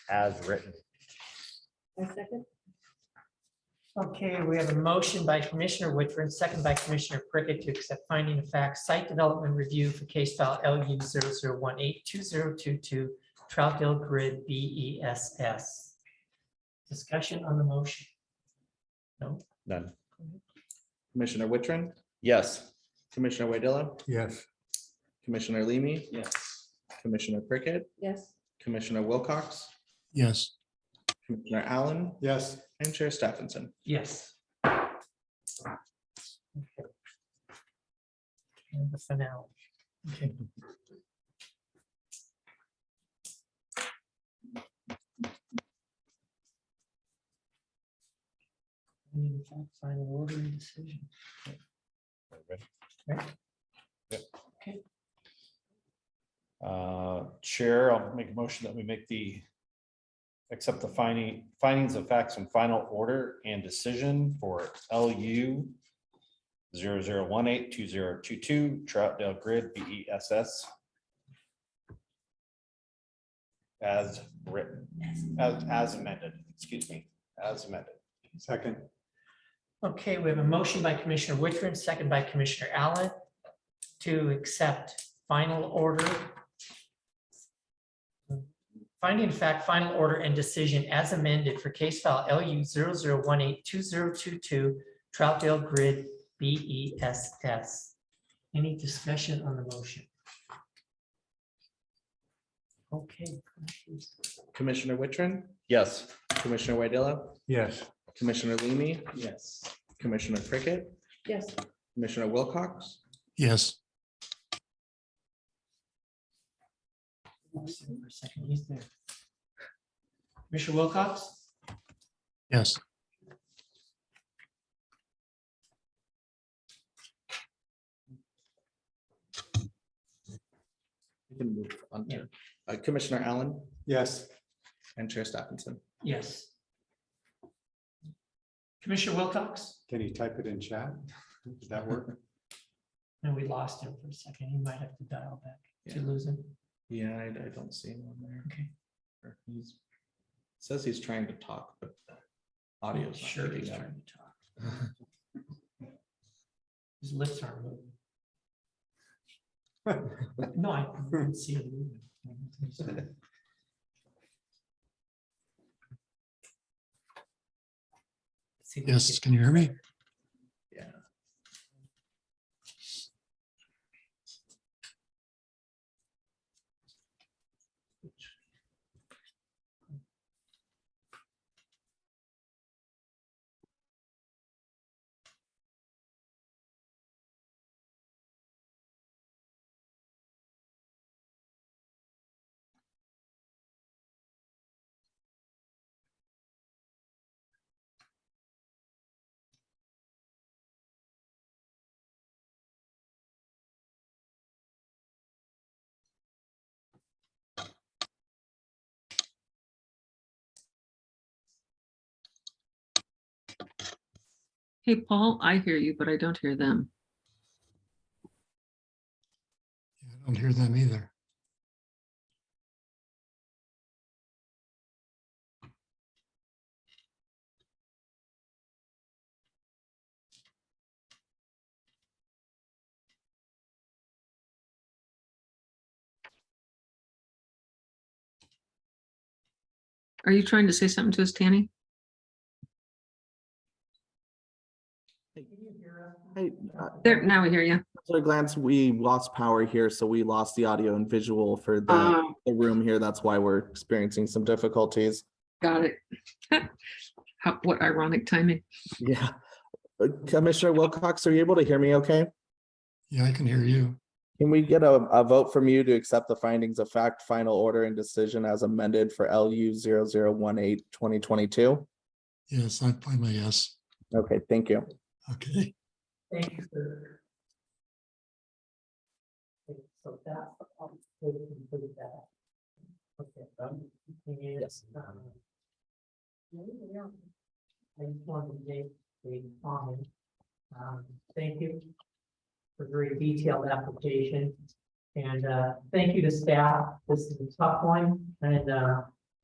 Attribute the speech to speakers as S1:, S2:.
S1: as written.
S2: I second.
S3: Okay, we have a motion by Commissioner Woodford, second by Commissioner Prickett to accept finding of fact, site development review for case file LU 00182022, Troutdale Grid BESS. Discussion on the motion.
S1: None.
S4: Commissioner Wittrin,
S1: Yes.
S4: Commissioner Wadilla,
S5: yes,
S4: Commissioner Leamy. Yes. Commissioner Prickett,
S2: Yes,
S4: Commissioner Wilcox,
S5: yes,
S4: Commissioner Allen,
S6: yes,
S4: and Chair Stephenson.
S3: Yes. Okay. And the finale. Okay. We need to Final order and decision.
S6: Uh, Chair, I'll make a motion that we make the, accept the finding, findings of facts and final order and decision for LU 00182022 Troutdale Grid B E S S. As written, as, as amended, excuse me, as amended.
S5: second,
S3: Okay, we have a motion by Commissioner Wittrin, second by Commissioner Allen to accept final order. Finding of fact, final order and decision as amended for case file LU 00182022 Troutdale Grid BESS. Any discussion on the motion? Okay.
S4: Commissioner Wittrin,
S1: Yes.
S4: Commissioner Wadilla,
S5: yes,
S4: Commissioner Leamy,
S6: Yes.
S4: Commissioner Prickett,
S2: yes,
S4: Commissioner Wilcox,
S5: yes,
S3: Commissioner Wilcox?
S5: yes,
S4: We can move on
S3: Yeah.
S4: to uh, Commissioner Allen
S6: Yes.
S4: and Chair Stephenson.
S3: Yes. Commissioner Wilcox?
S6: Can you type it in chat? Does that work?
S3: No, we lost him for a second. He might have to dial back. Did you lose him?
S4: Yeah, I, I don't see him on there.
S3: Okay.
S4: Or He's, says he's trying to talk, but the audio's
S3: Sure,
S4: not
S3: he's
S4: picking up.
S3: trying to talk. His lips aren't moving. No, I didn't see it moving. See if we
S5: yes,
S3: can-
S5: can you hear me?
S7: Hey, Paul, I hear you, but I don't hear them.
S5: Yeah, I don't hear them either.
S7: Are you trying to say something to us, Tanny? There, now we hear you.
S4: So uh, at a glance, we lost power here, so we lost the audio and visual for the,
S3: Um,
S7: Oh,
S4: the room here. That's why we're experiencing some difficulties.
S7: got it. How, what ironic timing.
S4: Yeah. Uh, Commissioner Wilcox, are you able to hear me okay?
S5: Yeah, I can hear you.
S4: Can we get a, a vote from you to accept the findings of fact, final order and decision as amended for LU 0018 2022?
S5: Yes, I find my yes.
S4: Okay, thank you.
S5: Okay,
S3: Thank you. sir. Okay, So that, um, we can put that. Okay, um, thing is, um, I just wanted to make a comment. Um, thank you for very detailed application. And, uh, thank you to staff. This is a tough one and, uh,